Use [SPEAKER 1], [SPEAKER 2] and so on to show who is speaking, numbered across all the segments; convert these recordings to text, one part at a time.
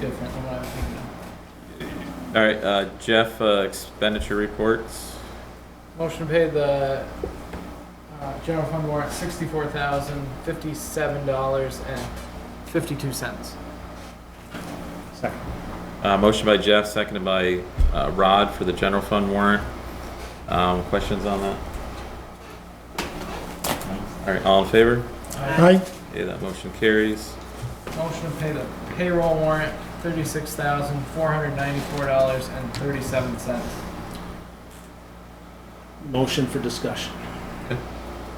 [SPEAKER 1] different than what I was thinking of.
[SPEAKER 2] All right, uh, Jeff, uh, expenditure reports.
[SPEAKER 1] Motion to pay the uh, general fund warrant sixty-four thousand fifty-seven dollars and fifty-two cents.
[SPEAKER 3] Second.
[SPEAKER 2] Uh, motion by Jeff, seconded by, uh, Rod for the general fund warrant. Um, questions on that? All right, all in favor?
[SPEAKER 3] Aye.
[SPEAKER 2] Okay, that motion carries.
[SPEAKER 1] Motion to pay the payroll warrant thirty-six thousand four hundred ninety-four dollars and thirty-seven cents.
[SPEAKER 3] Motion for discussion,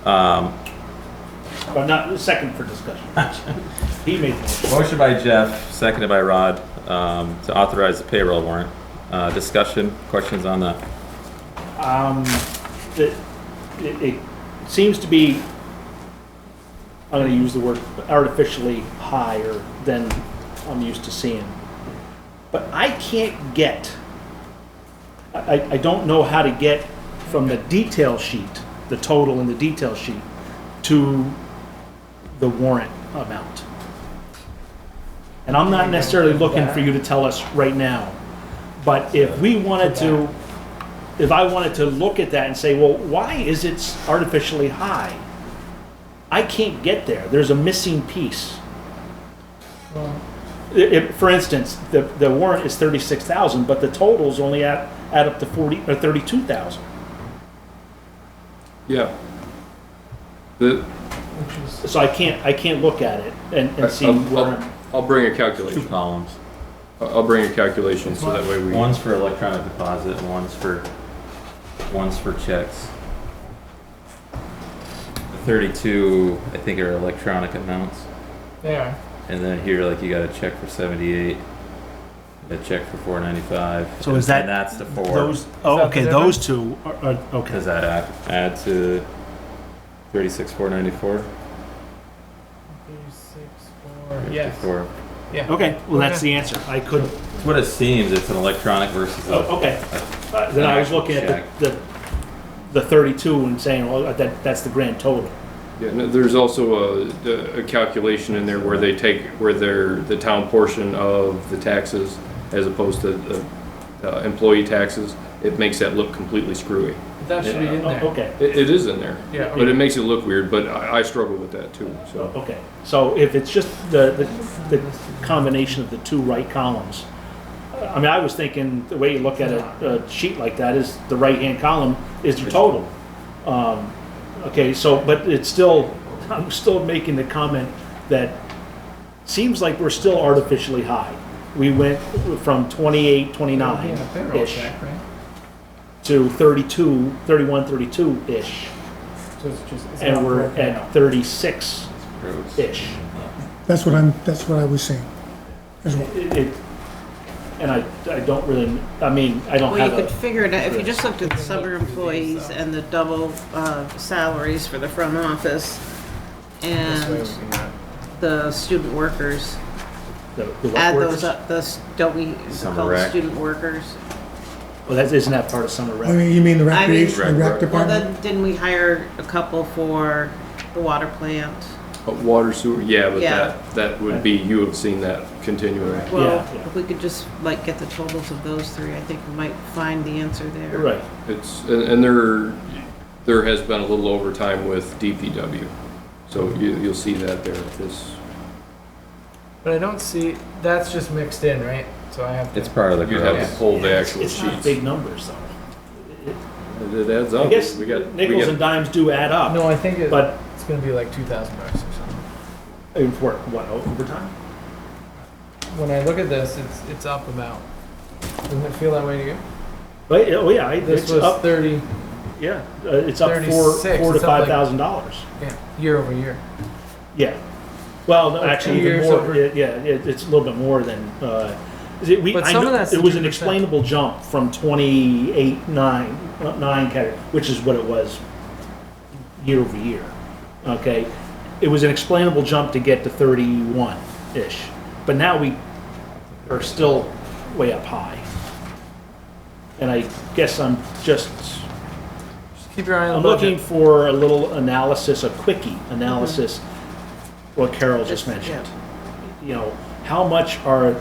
[SPEAKER 2] Um,
[SPEAKER 3] but not, second for discussion. He made the motion.
[SPEAKER 2] motion by Jeff, seconded by Rod, um, to authorize the payroll warrant. Uh, discussion, questions on that?
[SPEAKER 3] Um, the- it, it seems to be, I'm gonna use the word artificially higher than I'm used to seeing. But I can't get, I, I- I don't know how to get from the detail sheet, the total in the detail sheet, to the warrant amount. And I'm not necessarily looking for you to tell us right now, but if we wanted to, if I wanted to look at that and say, well, why is it artificially high? I can't get there. There's a missing piece.
[SPEAKER 1] Well,
[SPEAKER 3] I- if- for instance, the, the warrant is thirty-six thousand, but the totals only add, add up to forty, or thirty-two thousand.
[SPEAKER 4] Yeah. The,
[SPEAKER 1] which is,
[SPEAKER 3] So I can't, I can't look at it and, and see
[SPEAKER 4] I'll,
[SPEAKER 3] where,
[SPEAKER 4] I'll, I'll bring a
[SPEAKER 2] Two
[SPEAKER 4] calculation.
[SPEAKER 2] columns.
[SPEAKER 4] I'll I'll bring a calculation so that way we.
[SPEAKER 2] One's for electronic deposit, and one's for, one's for checks. The Thirty-two, I think, are electronic amounts,
[SPEAKER 1] they are.
[SPEAKER 2] and then here, like, you got a check for seventy-eight, a check for four ninety-five.
[SPEAKER 3] So is that-
[SPEAKER 2] And that's the four.
[SPEAKER 3] those, oh,
[SPEAKER 1] that
[SPEAKER 3] okay,
[SPEAKER 1] the
[SPEAKER 3] those two are, are, okay.
[SPEAKER 2] Does that add, add to thirty-six, four ninety-four?
[SPEAKER 1] Thirty-six, four, yes, yeah.
[SPEAKER 3] Okay, well, that's the answer. I could,
[SPEAKER 2] It's what it seems, it's an electronic versus
[SPEAKER 3] oh,
[SPEAKER 2] a,
[SPEAKER 3] okay. Uh, Then I was looking at the, the, the thirty-two and saying, well, that, that's the grand total.
[SPEAKER 4] Yeah, no, there's also a, a calculation in there where they take, where they're, the town portion of the taxes as opposed to the uh, employee taxes, it makes that look completely screwy.
[SPEAKER 1] But That should be in
[SPEAKER 3] Oh,
[SPEAKER 1] there.
[SPEAKER 3] Okay.
[SPEAKER 4] It, it is in there,
[SPEAKER 1] Yeah.
[SPEAKER 4] but it makes it look weird, but I, I struggle with that too, so.
[SPEAKER 3] Okay, so if it's just the, the, the combination of the two right columns, uh, I mean, I was thinking, the way you look at a, a sheet like that is the right-hand column is the total. Um, okay, so, but it's still, I'm still making the comment that seems like we're still artificially high. We went from twenty-eight,
[SPEAKER 1] It'll be in the payroll
[SPEAKER 3] twenty-nine-ish
[SPEAKER 1] check, right?
[SPEAKER 3] to thirty-two, thirty-one, thirty-two-ish,
[SPEAKER 1] So it's just. it's not
[SPEAKER 3] and we're
[SPEAKER 1] broken
[SPEAKER 3] at
[SPEAKER 1] out.
[SPEAKER 3] thirty-six-ish.
[SPEAKER 2] gross.
[SPEAKER 5] That's what I'm, that's what I was saying. as well.
[SPEAKER 3] It, it- and I, I don't really, I mean, I don't
[SPEAKER 6] Well,
[SPEAKER 3] have
[SPEAKER 6] you could
[SPEAKER 3] a,
[SPEAKER 6] figure it out, if you just looked at the summer employees and the double uh, salaries for the front office
[SPEAKER 1] This way
[SPEAKER 6] and
[SPEAKER 1] would be not-
[SPEAKER 6] the student workers,
[SPEAKER 3] the the what
[SPEAKER 6] add
[SPEAKER 3] works?
[SPEAKER 6] those up, those, don't we
[SPEAKER 2] Summer
[SPEAKER 6] call them
[SPEAKER 2] rec.
[SPEAKER 6] student workers?
[SPEAKER 3] Well, that, isn't that part of summer
[SPEAKER 5] I
[SPEAKER 3] rec?
[SPEAKER 5] mean, you mean the
[SPEAKER 6] I mean-
[SPEAKER 5] recreation, the
[SPEAKER 2] Right,
[SPEAKER 5] rec
[SPEAKER 2] right.
[SPEAKER 6] Well,
[SPEAKER 5] department?
[SPEAKER 6] then, didn't we hire a couple for the water plant?
[SPEAKER 4] Uh, Water sewer, yeah, but
[SPEAKER 6] Yeah.
[SPEAKER 4] that, that would be, you have seen that continuing.
[SPEAKER 6] Well,
[SPEAKER 3] yeah.
[SPEAKER 6] if we could just like get the totals of those three, I think we might find the answer there.
[SPEAKER 3] Right,
[SPEAKER 4] It's, and and there, there has been a little overtime with DPW, so you, you'll see that there, this.
[SPEAKER 1] But I don't see, that's just mixed in, right? So I have. to-
[SPEAKER 2] It's part of the
[SPEAKER 4] You have
[SPEAKER 2] gross.
[SPEAKER 4] to pull the
[SPEAKER 3] it's
[SPEAKER 4] actual
[SPEAKER 3] it's not
[SPEAKER 4] sheets.
[SPEAKER 3] big numbers though. It-
[SPEAKER 4] It adds up.
[SPEAKER 3] I guess
[SPEAKER 4] We got- we
[SPEAKER 3] nickels
[SPEAKER 4] got-
[SPEAKER 3] and dimes do add up,
[SPEAKER 1] No, I think it,
[SPEAKER 3] but
[SPEAKER 1] it's gonna be like two thousand bucks or something.
[SPEAKER 3] in for, what, overtime?
[SPEAKER 1] When I look at this, it's, it's up about, doesn't it feel that way to you?
[SPEAKER 3] But, yeah, oh yeah, I-
[SPEAKER 1] This
[SPEAKER 3] it's
[SPEAKER 1] was
[SPEAKER 3] up,
[SPEAKER 1] thirty,
[SPEAKER 3] yeah, uh, it's up four,
[SPEAKER 1] 36,
[SPEAKER 3] four to
[SPEAKER 1] it's up like-
[SPEAKER 3] five thousand dollars.
[SPEAKER 1] yeah, year over year.
[SPEAKER 3] Yeah. Well, no,
[SPEAKER 1] Like
[SPEAKER 3] actually,
[SPEAKER 1] two
[SPEAKER 3] even
[SPEAKER 1] years
[SPEAKER 3] more,
[SPEAKER 1] over-
[SPEAKER 3] yeah, yeah, it, it's a little bit more than, uh, is it, we,
[SPEAKER 1] But
[SPEAKER 3] I
[SPEAKER 1] some
[SPEAKER 3] know,
[SPEAKER 1] of that's
[SPEAKER 3] it was an
[SPEAKER 1] 2%.
[SPEAKER 3] explainable jump from twenty-eight, nine, uh, nine category, which is what it was year over year, okay? It was an explainable jump to get to thirty-one-ish, but now we are still way up high. And I guess I'm just
[SPEAKER 1] Just Keep your eye on
[SPEAKER 3] I'm
[SPEAKER 1] the
[SPEAKER 3] looking
[SPEAKER 1] budget.
[SPEAKER 3] for a little analysis, a quickie analysis, what Carol just mentioned.
[SPEAKER 6] Yeah.
[SPEAKER 3] You know, how much are